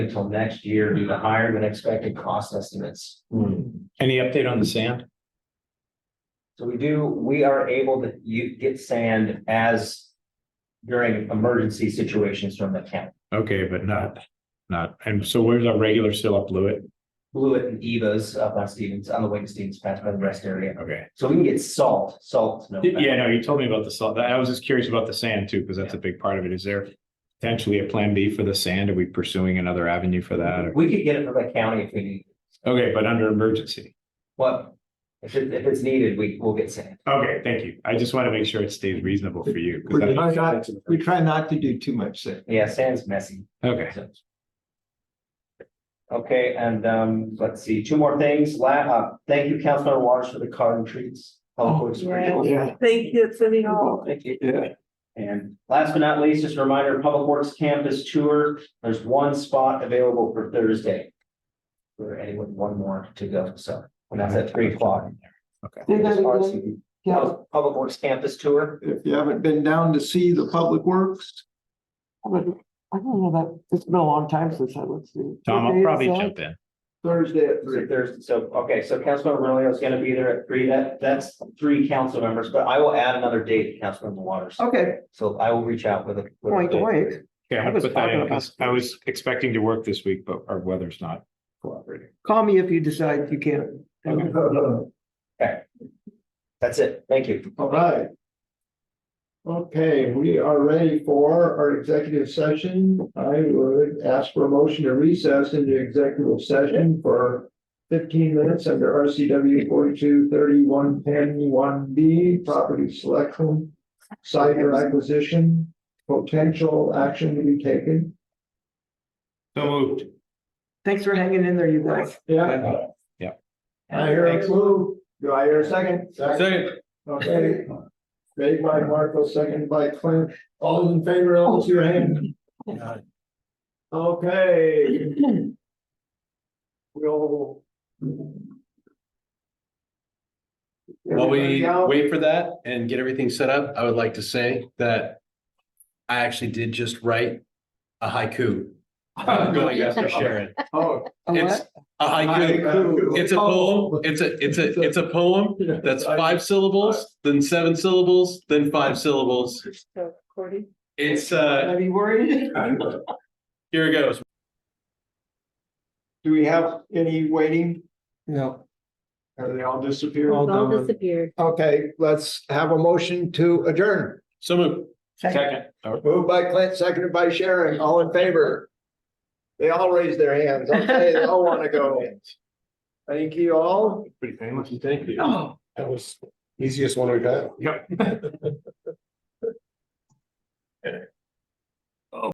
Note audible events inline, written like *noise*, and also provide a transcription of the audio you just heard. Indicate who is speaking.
Speaker 1: until next year due to higher than expected cost estimates.
Speaker 2: Any update on the sand?
Speaker 1: So we do, we are able to, you get sand as during emergency situations from the county.
Speaker 2: Okay, but not, not, and so where's our regular still up Lewitt?
Speaker 1: Blewett and Eva's up on Stevens, on the way to Stevens Pass by the rest area.
Speaker 2: Okay.
Speaker 1: So we can get salt, salt. no matter.
Speaker 2: Yeah, no, you told me about the salt. I was just curious about the sand too, because that's a big part of it. Is there potentially a plan B for the sand? Are we pursuing another avenue for that? or-
Speaker 1: We could get it from the county if we need,
Speaker 2: Okay, but under emergency.
Speaker 1: what, if it, if it's needed, we will get sand.
Speaker 2: Okay, thank you. I just want to make sure it stays reasonable for you. 'cause
Speaker 3: We're
Speaker 2: that-
Speaker 3: trying not, we try not to do too much sand.
Speaker 1: Yeah, sand's messy.
Speaker 2: Okay,
Speaker 1: so. Okay, and um, let's see, two more things. La, uh, thank you, Councilor Waters, for the garden trees. Public Works Appreciation.
Speaker 3: Yeah,
Speaker 4: Thank you, City
Speaker 5: Oh,
Speaker 4: Hall.
Speaker 1: Thank you.
Speaker 3: yeah.
Speaker 1: And last but not least, just a reminder, Public Works Campus Tour, there's one spot available for Thursday. For anyone, one more to go, so, and that's at three o'clock.
Speaker 5: Do that again.
Speaker 1: Public
Speaker 5: Yeah,
Speaker 1: Works Campus Tour,
Speaker 3: If you haven't been down to see the public works,
Speaker 5: I don't know that, it's been a long time since I looked through.
Speaker 2: Tom, I'll probably jump in.
Speaker 3: Thursday at
Speaker 1: so
Speaker 3: three.
Speaker 1: Thursday, so, okay, so Councilmember Romeo is gonna be there at three, that, that's three council members, but I will add another date to Councilmember Waters.
Speaker 5: Okay,
Speaker 1: So I will reach out with a. with a
Speaker 5: point,
Speaker 1: date.
Speaker 5: wait.
Speaker 2: Okay, I'm
Speaker 5: I
Speaker 2: gonna
Speaker 5: was
Speaker 2: put that in
Speaker 5: talking about-
Speaker 2: 'cause I was expecting to work this week, but our weather's not cooperating.
Speaker 5: Call me if you decide you can't.
Speaker 3: *laughs* All
Speaker 1: That's it, thank you.
Speaker 3: right. Okay, we are ready for our executive session. I would ask for a motion to recess into executive session for fifteen minutes under RCW forty-two thirty-one ten one B, property selection, site or acquisition, potential action to be taken.
Speaker 2: So moved.
Speaker 5: Thanks for hanging in there, you guys.
Speaker 3: Yeah.
Speaker 2: Yeah.
Speaker 3: I hear a move. Do I hear a second? Okay. Made by Marco, seconded by Clint. All in favor, raise your hand. Okay. We'll.
Speaker 6: While
Speaker 3: Everybody
Speaker 6: we
Speaker 3: out?
Speaker 6: wait for that and get everything set up, I would like to say that I actually did just write a haiku *laughs* uh, going after Sharon.
Speaker 3: Oh.
Speaker 6: It's a haiku.
Speaker 3: haiku.
Speaker 6: It's a poem.
Speaker 3: Oh.
Speaker 6: It's a, it's a, it's a poem that's five syllables, then seven syllables, then five syllables.
Speaker 4: So, Cordy?
Speaker 6: It's, uh,
Speaker 5: Are you worried?
Speaker 6: here it goes.
Speaker 3: Do we have any waiting?
Speaker 5: No.
Speaker 3: Have they all disappeared?
Speaker 5: All
Speaker 4: All
Speaker 5: gone.
Speaker 4: disappeared.
Speaker 3: Okay, let's have a motion to adjourn.
Speaker 6: So moved.
Speaker 3: Moved by Clint, seconded by Sharon, all in favor. They all raise their hands. Okay, they all want to go. Thank you all.
Speaker 6: Pretty famous. Thank you.
Speaker 3: That was easiest one we've had.